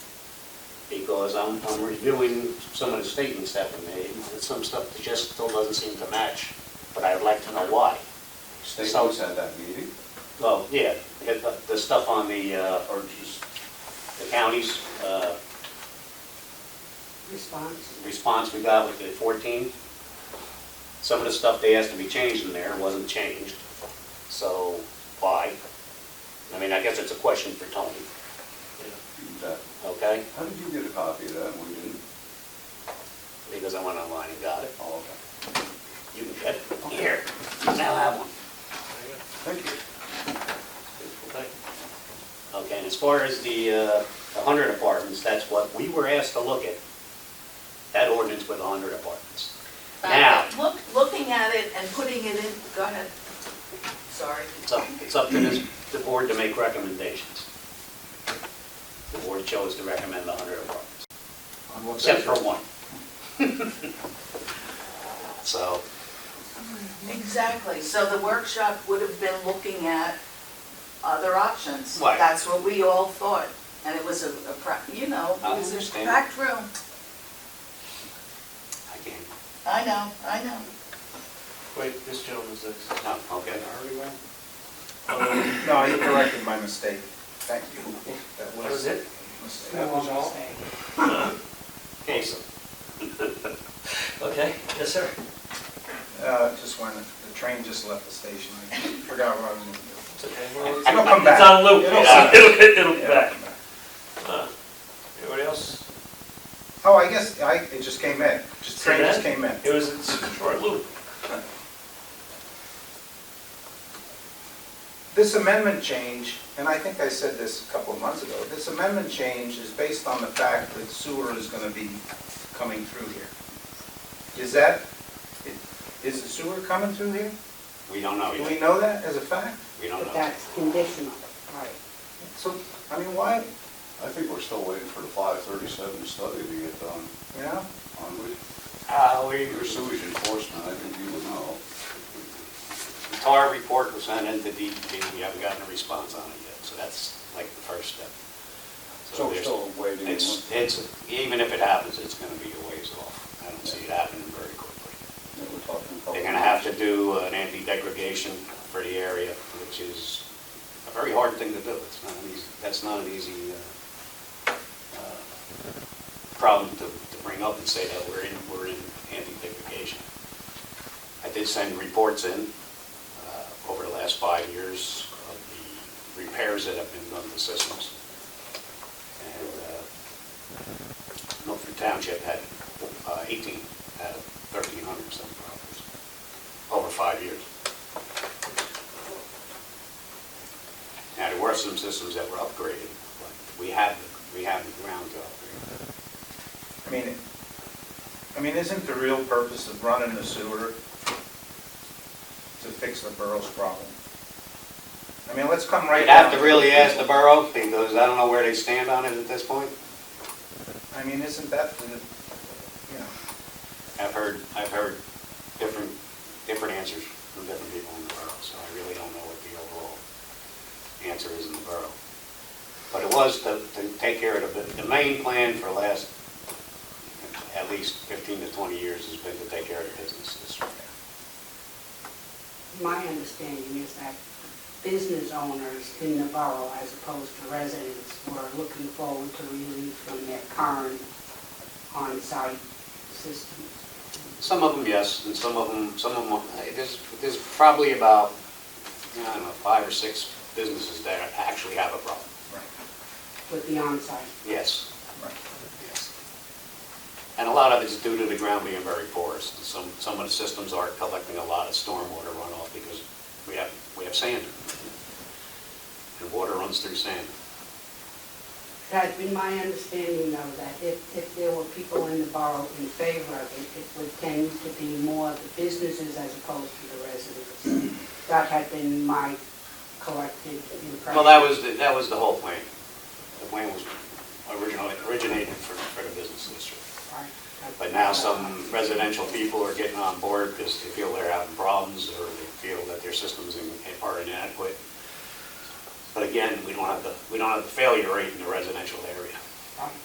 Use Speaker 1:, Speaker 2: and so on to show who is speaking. Speaker 1: because I'm, I'm reviewing some of the statements that were made, and some stuff that just still doesn't seem to match, but I'd like to know why.
Speaker 2: Staples at that meeting,
Speaker 1: Well, yeah, the, the stuff on the, uh, or just the county's, uh,
Speaker 3: response.
Speaker 1: response we got with the 14, some of the stuff they asked to be changed in there wasn't changed. So why? I mean, I guess it's a question for Tony,
Speaker 2: that,
Speaker 1: okay?
Speaker 2: uh, how did you get a copy of that? We didn't.
Speaker 1: Because I went online and got it.
Speaker 2: Oh, okay.
Speaker 1: You can get it. Here, I now have one.
Speaker 2: Thank you.
Speaker 1: Okay, and as far as the uh, the 100 apartments, that's what we were asked to look at. That ordinance with 100 apartments. Now,
Speaker 3: But Look, looking at it and putting it in, go ahead. Sorry.
Speaker 1: it's up, it's up to this, the board to make recommendations. The board chose to recommend the 100 apartments,
Speaker 2: On what
Speaker 1: except for
Speaker 2: basis?
Speaker 1: one. So,
Speaker 3: Exactly, so the workshop would have been looking at other options.
Speaker 1: Right.
Speaker 3: That's what we all thought, and it was a, a pra- you know,
Speaker 1: I
Speaker 3: it was a
Speaker 1: understand.
Speaker 3: packed room.
Speaker 1: I can't,
Speaker 3: I know, I know.
Speaker 4: Wait, this gentleman's next.
Speaker 1: no, okay.
Speaker 5: No, you corrected my mistake. Thank you. That
Speaker 4: That was it?
Speaker 5: a mistake.
Speaker 4: That was all?
Speaker 1: Okay, so. Okay,
Speaker 4: Yes, sir.
Speaker 5: Uh, Just when the train just left the station, I forgot what I was going to do.
Speaker 4: It's okay. Well, it's-
Speaker 5: It'll come back.
Speaker 4: It's on loop.
Speaker 5: It'll
Speaker 4: Yeah,
Speaker 5: come
Speaker 4: It'll, get- it'll be
Speaker 5: Yeah.
Speaker 4: back. Huh. Anybody else?
Speaker 5: Oh, I guess, I, it just came in. Just,
Speaker 4: See
Speaker 5: train just
Speaker 4: that?
Speaker 5: came in.
Speaker 4: It was, it's a short loop.
Speaker 5: This amendment change, and I think I said this a couple of months ago, this amendment change is based on the fact that sewer is going to be coming through here. Is that, is the sewer coming through here?
Speaker 1: We don't know
Speaker 5: Do we
Speaker 1: yet,
Speaker 5: know that as a fact?
Speaker 1: we don't
Speaker 6: But
Speaker 1: know.
Speaker 6: that's conditional.
Speaker 3: Right.
Speaker 5: So, I mean, why,
Speaker 2: I think we're still waiting for the five thirty-seven study to get done,
Speaker 5: you know?
Speaker 2: aren't we?
Speaker 1: Uh, we,
Speaker 2: Your sewage enforcement, I think you would know.
Speaker 1: The TAR report was sent into DEP, we haven't gotten a response on it yet, so that's like the first step.
Speaker 2: So we're
Speaker 1: there's-
Speaker 2: still waiting.
Speaker 1: It's, it's, even if it happens, it's gonna be a ways off. I don't see it happening very quickly.
Speaker 2: Yeah, We're talking. a couple
Speaker 1: They're gonna have to do an anti-degradation for the area, which is a very hard thing to do. It's not an easy, that's not an easy, uh, uh, problem to, to bring up and say that we're in, we're in anti-degradation. I did send reports in, uh, over the last five years of the repairs that have been done to systems. And, uh, Milford Township had, uh, eighteen out of thirteen hundred some problems over five years. Now, there were some systems that were upgraded, but we have, the- we have the ground to upgrade.
Speaker 5: I mean, it- I mean, isn't the real purpose of running the sewer to fix the borough's problem? I mean, let's come right
Speaker 1: You'd
Speaker 5: down.
Speaker 1: have to really ask the borough, because I don't know where they stand on it at this point.
Speaker 5: I mean, isn't that, the- you know,
Speaker 1: I've heard, I've heard different, different answers from different people in the borough, so I really don't know what the overall answer is in the borough. But it was to, to take care of the, the main plan for last, at least fifteen to twenty years has been to take care of the businesses.
Speaker 6: My understanding is that business owners in the borough, as opposed to residents, were looking forward to relief from their current on-site systems.
Speaker 1: Some of them, yes, and some of them, some of them, there's, there's probably about, I don't know, five or six businesses that actually have a problem.
Speaker 5: right,
Speaker 6: with the on-site.
Speaker 1: Yes,
Speaker 5: right.
Speaker 1: Yes. And a lot of it's due to the ground being very porous. And Some, some of the systems are collecting a lot of stormwater runoff because we have, we have sand. And water runs through sand.
Speaker 6: It has been my understanding, though, that if, if there were people in the borough in favor of it, it would tend to be more the businesses as opposed to the residents. That had been my collective impression.
Speaker 1: Well, that was, the- that was the whole plan. The plan was originally, originated for, for the business district.
Speaker 6: Right.
Speaker 1: But now some residential people are getting on board because they feel they're having problems or they feel that their systems in- are inadequate. But again, we don't have the, we don't have the failure rate in the residential area.